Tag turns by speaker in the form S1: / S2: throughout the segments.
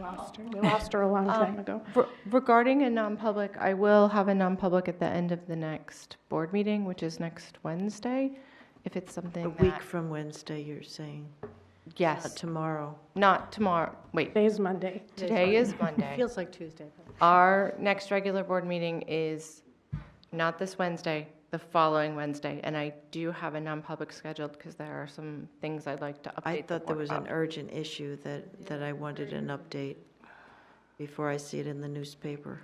S1: lost her. Um, We lost her a long time ago.
S2: Re- Regarding a non-public, I will have a non-public at the end of the next board meeting, which is next Wednesday, if it's something
S3: A
S2: that...
S3: week from Wednesday, you're saying, not
S2: Yes,
S3: tomorrow.
S2: not tomorrow, wait,
S1: Today's Monday.
S2: today is Monday.
S4: Feels like Tuesday. but-
S2: Our next regular board meeting is not this Wednesday, the following Wednesday, and I do have a non-public scheduled because there are some things I'd like to update
S3: I
S2: the
S3: thought there
S2: board
S3: was an
S2: about.
S3: urgent issue that, that I wanted an update before I see it in the newspaper.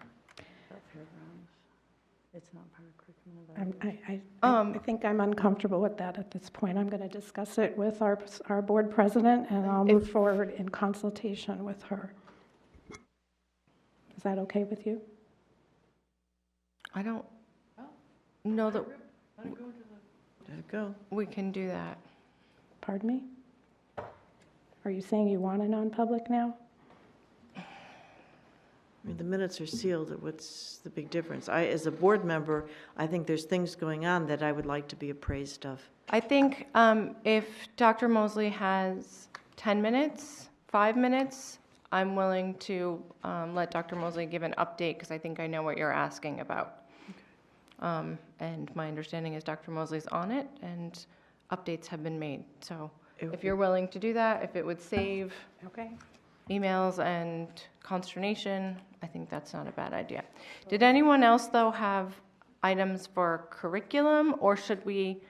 S4: It's not part of curriculum evaluation.
S1: I'm- I, I- I,
S2: Um,
S1: I think I'm uncomfortable with that at this point. I'm going to discuss it with our, our board president, and I'll move forward in consultation with her. Is that okay with you?
S2: I don't
S3: Oh.
S2: know that
S3: There you go.
S2: we can do that.
S1: Pardon me? Are you saying you want a non-public now?
S3: I mean, the minutes are sealed, what's the big difference? I, as a board member, I think there's things going on that I would like to be appraised of.
S2: I think um, if Dr. Mosley has 10 minutes, five minutes, I'm willing to um, let Dr. Mosley give an update because I think I know what you're asking about. Um, And my understanding is Dr. Mosley's on it and updates have been made. So
S3: It
S2: if you're willing to do that, if it would save
S1: Okay.
S2: emails and consternation, I think that's not a bad idea. Did anyone else, though, have items for curriculum, or should we,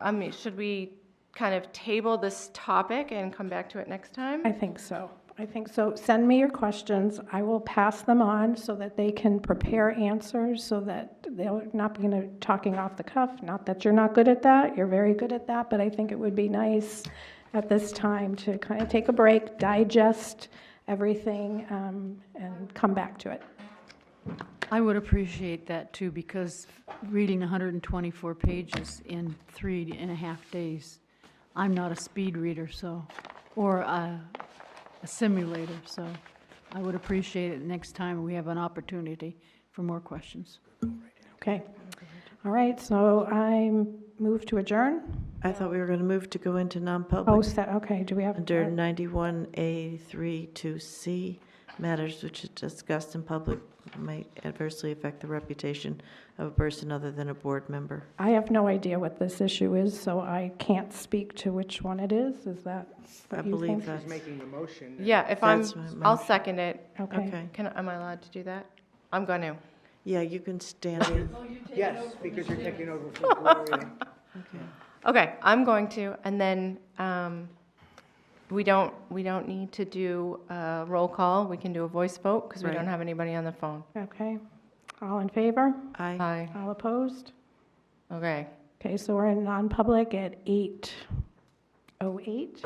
S2: I mean, should we kind of table this topic and come back to it next time?
S1: I think so. I think so. Send me your questions. I will pass them on so that they can prepare answers, so that they'll not be you know, talking off the cuff. Not that you're not good at that, you're very good at that, but I think it would be nice at this time to kind of take a break, digest everything, um, and come back to it.
S5: I would appreciate that too, because reading 124 pages in three and a half days, I'm not a speed reader, so, or a a simulator, so I would appreciate it next time we have an opportunity for more questions.
S1: Okay? All right, so I move to adjourn.
S3: I thought we were going to move to go into
S1: Oh,
S3: non-public
S1: set, okay, do we have?
S3: under 91A32C, matters which is discussed in public may adversely affect the reputation of a person other than a board member.
S1: I have no idea what this issue is, so I can't speak to which one it is. Is that
S3: I
S1: what you
S3: believe
S1: think?
S3: that's,
S6: making a motion.
S2: Yeah, if I'm,
S3: That's my
S2: I'll
S3: motion.
S2: second it.
S1: Okay.
S3: okay.
S2: Can, am I allowed to do that? I'm going to.
S3: Yeah, you can stand in.
S6: Yes, because you're taking over from Gloria.
S3: Okay.
S2: Okay, I'm going to, and then um, we don't, we don't need to do a roll call. We can do a voice vote because we
S3: Right.
S2: don't have anybody on the phone.
S1: Okay. All in favor?
S3: Aye.
S2: Aye.
S1: All opposed?
S2: Okay.
S1: oh Okay, so we're in non-public at 8:08.